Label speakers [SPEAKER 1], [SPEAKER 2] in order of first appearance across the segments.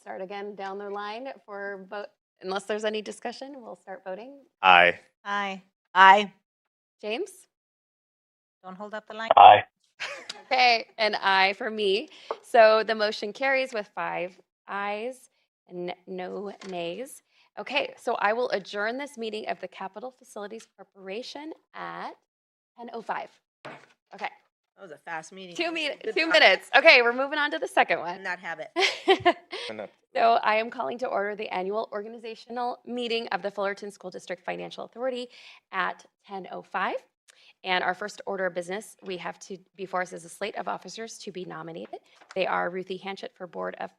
[SPEAKER 1] start again down the line for vote. Unless there's any discussion, we'll start voting.
[SPEAKER 2] Aye.
[SPEAKER 3] Aye. Aye.
[SPEAKER 1] James?
[SPEAKER 3] Don't hold up the line.
[SPEAKER 2] Aye.
[SPEAKER 1] Okay, an aye for me. So the motion carries with five ayes and no nays. Okay, so I will adjourn this meeting of the Capital Facilities Corporation at 10:05. Okay,
[SPEAKER 3] That was a fast meeting.
[SPEAKER 1] two
[SPEAKER 3] Good
[SPEAKER 1] minutes, two
[SPEAKER 3] job.
[SPEAKER 1] minutes. Okay, we're moving on to the second
[SPEAKER 3] And
[SPEAKER 1] one.
[SPEAKER 3] Not have it.
[SPEAKER 1] So I am calling to order the annual organizational meeting of the Fullerton School District Financial Authority at 10:05. And our first order of business we have to before us is a slate of officers to be nominated. They are Ruthie Hanchett for Board of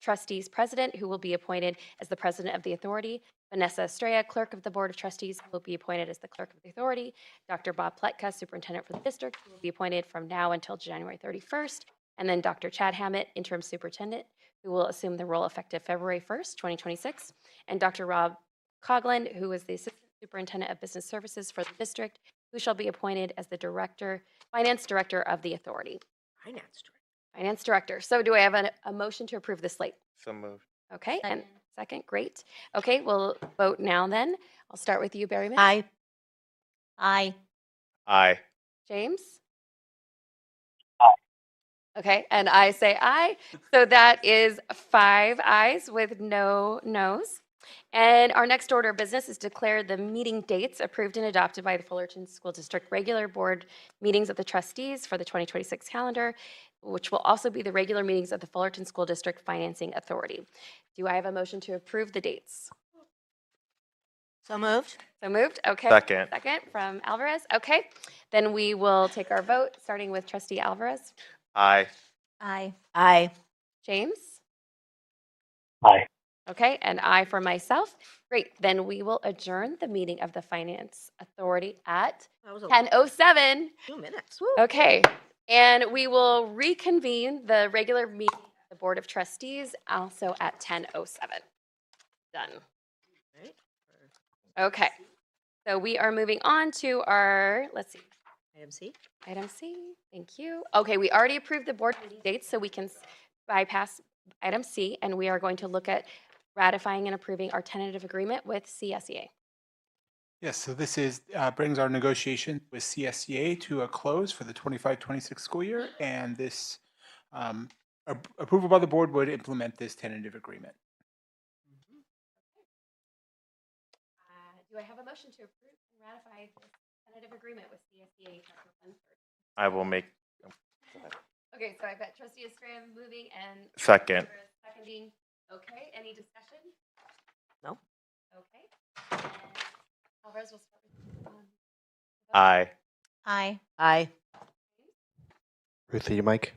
[SPEAKER 1] Trustees President, who will be appointed as the President of the Authority. Vanessa Estrella, Clerk of the Board of Trustees, who will be appointed as the Clerk of the Authority. Dr. Bob Pletka, Superintendent for the District, who will be appointed from now until January 31st. And then Dr. Chad Hammett, Interim Superintendent, who will assume the role effective February 1st, 2026, and Dr. Rob Cogland, who is the Assistant Superintendent of Business Services for the district, who shall be appointed as the Director, Finance Director of the Authority,
[SPEAKER 3] Finance director.
[SPEAKER 1] Finance Director. So do I have a, a motion to approve this slate?
[SPEAKER 2] So moved.
[SPEAKER 1] Okay, and second, great. Okay, we'll vote now then. I'll start with you, Berryman.
[SPEAKER 3] Aye. Aye.
[SPEAKER 2] Aye.
[SPEAKER 1] James? Okay, and I say aye. So that is five ayes with no noes. And our next order of business is declare the meeting dates approved and adopted by the Fullerton School District regular board meetings of the trustees for the 2026 calendar, which will also be the regular meetings of the Fullerton School District Financing Authority. Do I have a motion to approve the dates?
[SPEAKER 3] So moved?
[SPEAKER 1] So moved, okay.
[SPEAKER 2] Second.
[SPEAKER 1] Second from Alvarez, okay. Then we will take our vote, starting with trustee Alvarez.
[SPEAKER 2] Aye.
[SPEAKER 3] Aye. Aye.
[SPEAKER 1] James?
[SPEAKER 2] Aye.
[SPEAKER 1] Okay, and I for myself. Great, then we will adjourn the meeting of the Finance Authority at
[SPEAKER 3] That was a
[SPEAKER 1] 10:07.
[SPEAKER 3] two minutes. Woo.
[SPEAKER 1] Okay, and we will reconvene the regular meeting of the Board of Trustees also at 10:07. Done.
[SPEAKER 3] Right.
[SPEAKER 1] Okay, so we are moving on to our, let's see,
[SPEAKER 3] Item C.
[SPEAKER 1] Item C, thank you. Okay, we already approved the board meeting dates, so we can s- bypass item C, and we are going to look at ratifying and approving our tentative agreement with E CSEA.
[SPEAKER 4] Yes, so this is, uh, brings our negotiation with CSEA to a close for the 25-26 school year, and this um, ap- approval by the board would implement this tentative agreement.
[SPEAKER 1] Uh, Do I have a motion to approve and ratify this tentative agreement with E CSEA?
[SPEAKER 2] I will make
[SPEAKER 1] Okay, so I've got trustee Estrella moving and
[SPEAKER 2] second.
[SPEAKER 1] seconding. Okay, any discussion?
[SPEAKER 3] No.
[SPEAKER 1] Okay. Alvarez will start with Um,
[SPEAKER 2] Aye.
[SPEAKER 3] Aye. Aye.
[SPEAKER 5] Ruthie, your mic.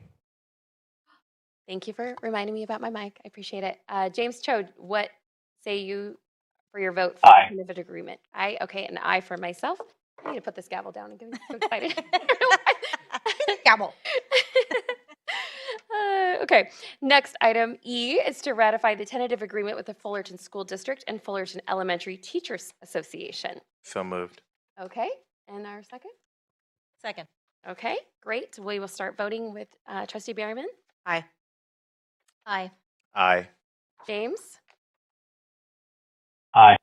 [SPEAKER 1] Thank you for reminding me about my mic. I appreciate it. Uh, James Cho, what say you for your vote for
[SPEAKER 2] Aye.
[SPEAKER 1] the tentative agreement? Aye. Okay, an aye for myself. I need to put this gavel down and get me so excited. I don't know why.
[SPEAKER 3] Gavel.
[SPEAKER 1] Uh, okay, next item E is to ratify the tentative agreement with the Fullerton School District and Fullerton Elementary Teachers Association.
[SPEAKER 2] So moved.
[SPEAKER 1] Okay, and our second?
[SPEAKER 3] Second.
[SPEAKER 1] Okay, great. We will start voting with uh, Trustee Berryman,
[SPEAKER 3] Aye. Aye.
[SPEAKER 2] Aye.
[SPEAKER 1] James.
[SPEAKER 2] Aye.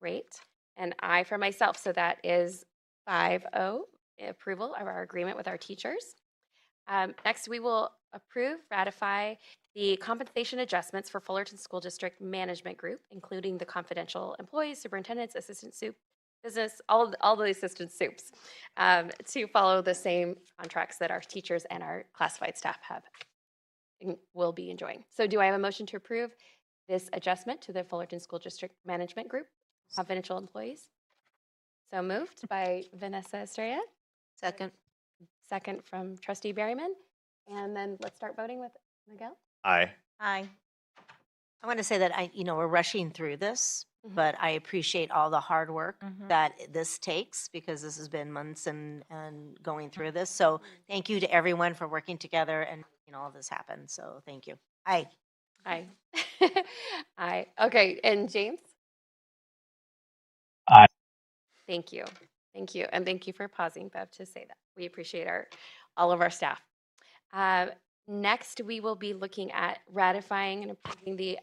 [SPEAKER 1] Great. And I for myself. So that is 5 0 approval of our agreement with our teachers. Um, next, we will approve, ratify the compensation adjustments for Fullerton School District Management Group, including the confidential employees, superintendents, assistant soup, business, all, of- all the assistant soups, um, to follow the same contracts that our teachers and our classified staff have and will be enjoying. So, do I have a motion to approve this adjustment to the Fullerton School District Management Group confidential employees. So moved by Vanessa Estrella,
[SPEAKER 3] Second.
[SPEAKER 1] second from trustee Berryman. And then let's start voting with Miguel.
[SPEAKER 2] Aye.
[SPEAKER 3] Aye. I want to say that I, you know, we're rushing through this,
[SPEAKER 1] Mhm.
[SPEAKER 3] but I appreciate all the hard work that this takes because this has been months and, and going through this. So thank you to everyone for working together and making all this happen. So thank you. Aye.
[SPEAKER 1] Aye. Aye. Okay, and James?
[SPEAKER 2] Aye.
[SPEAKER 1] Thank you. Thank you. And thank you for pausing, Bev, to say that. We appreciate our, all of our staff. Uh, Next, we will be looking at ratifying and approving the